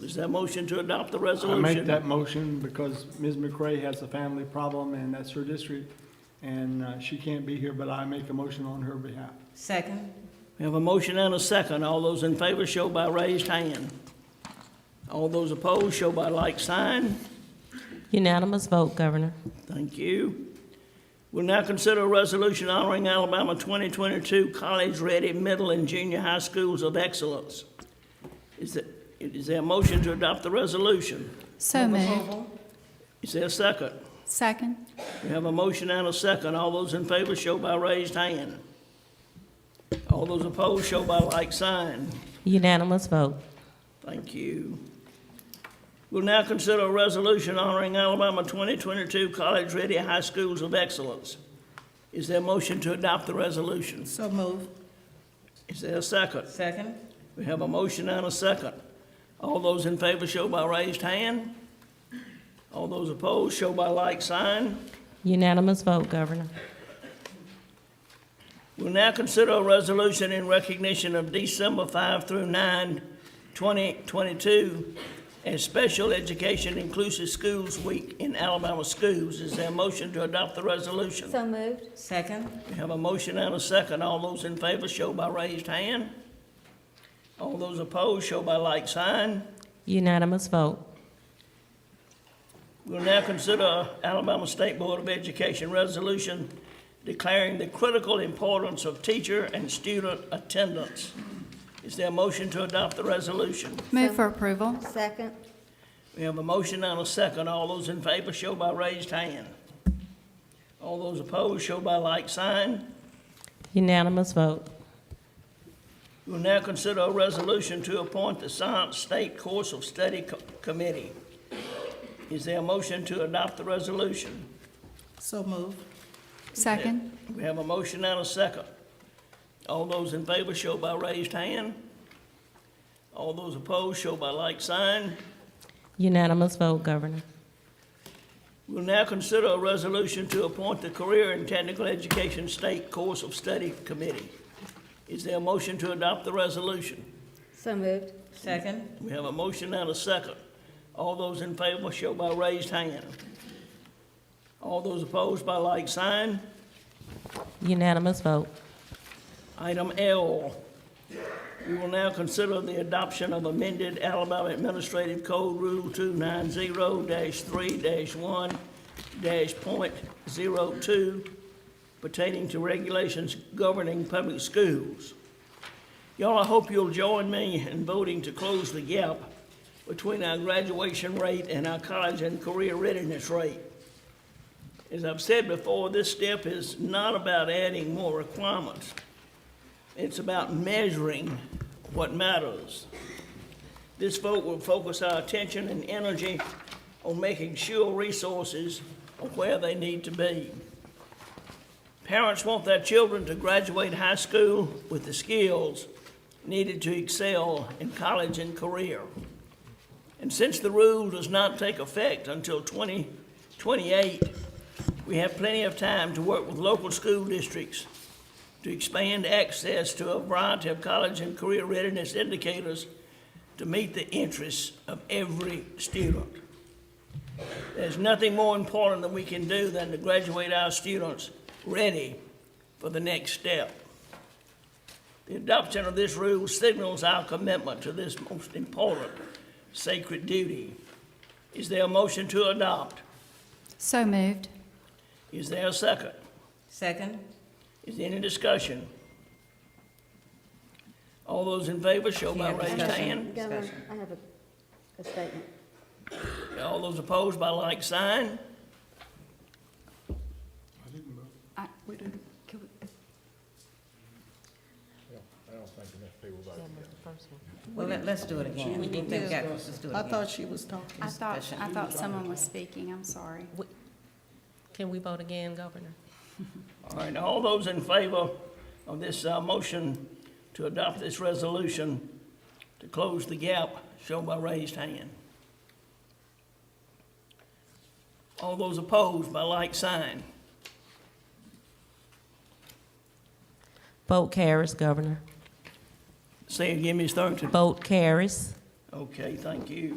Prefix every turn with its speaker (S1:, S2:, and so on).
S1: Is there a motion to adopt the
S2: I
S1: resolution?
S2: make that motion because Ms. McRae has a family problem, and that's her district, and uh, she can't be here, but I make a motion on her behalf.
S3: Second.
S1: We have a motion and a second. All those in favor show by raised hand. All those opposed show by like sign.
S4: Unanimous vote, Governor.
S1: Thank you. We'll now consider a resolution honoring Alabama 2022 College-Ready Middle and Junior High Schools of Excellence. Is there, is there a motion to adopt the resolution?
S5: So moved.
S1: Is there a second?
S5: Second.
S1: We have a motion and a second. All those in favor show by raised hand. All those opposed show by like sign.
S4: Unanimous vote.
S1: Thank you. We'll now consider a resolution honoring Alabama 2022 College Ready High Schools of Excellence. Is there a motion to adopt the resolution?
S3: So moved.
S1: Is there a second?
S3: Second.
S1: We have a motion and a second. All those in favor show by raised hand. All those opposed show by like sign.
S4: Unanimous vote, Governor.
S1: We'll now consider a resolution in recognition of December 5 through 9, 2022, as Special Education Inclusive Schools Week in Alabama schools. Is there a motion to adopt the resolution?
S6: So moved.
S3: Second.
S1: We have a motion and a second. All those in favor show by raised hand. All those opposed show by like sign.
S4: Unanimous vote.
S1: We'll now consider Alabama State Board of Education resolution declaring the critical importance of teacher and student attendance. Is there a motion to adopt the resolution?
S5: Move for approval.
S6: Second.
S1: We have a motion and a second. All those in favor show by raised hand. All those opposed show by like sign.
S4: Unanimous vote.
S1: We'll now consider a resolution to appoint the Science State Course of Study Co- Committee. Is there a motion to adopt the resolution?
S3: So moved.
S5: Second.
S1: We have a motion and a second. All those in favor show by raised hand. All those opposed show by like sign.
S4: Unanimous vote, Governor.
S1: We'll now consider a resolution to appoint the Career and Technical Education State Course of Study Committee. Is there a motion to adopt the resolution?
S6: So moved.
S3: Second.
S1: We have a motion and a second. All those in favor show by raised hand. All those opposed by like sign.
S4: Unanimous vote.
S1: Item L, we will now consider the adoption of amended Alabama Administrative Code Rule 290-3-1-.02 pertaining to regulations governing public schools. Y'all, I hope you'll join me in voting to close the gap between our graduation rate and our college and career readiness rate. As I've said before, this step is not about adding more requirements. It's about measuring what matters. This vote will focus our attention and energy on making sure resources are where they need to be. Parents want their children to graduate high school with the skills needed to excel in college and career. And since the rule does not take effect until 2028, we have plenty of time to work with local school districts to expand access to a variety of college and career readiness indicators to meet the interests of every student. There's nothing more important that we can do than to graduate our students ready for the next step. The adoption of this rule signals our commitment to this most important sacred duty. Is there a motion to adopt?
S5: So moved.
S1: Is there a second?
S3: Second.
S1: Is there any discussion? All those in favor show by
S3: Yeah,
S1: raised
S3: discussion.
S1: hand.
S6: Governor,
S3: Discussion.
S6: I have a, a statement.
S1: All those opposed by like sign.
S3: Well, let, let's do it again. We need to get, let's do it
S7: I
S3: again.
S7: thought she was talking.
S5: I thought, I thought someone was speaking. I'm sorry.
S4: Can we vote again, Governor?
S1: All right, all those in favor of this uh, motion to adopt this resolution to close the gap, show by raised hand. All those opposed by like sign.
S4: Vote carries, Governor.
S1: Say again, Ms. Thornton.
S4: Vote carries.
S1: Okay, thank you.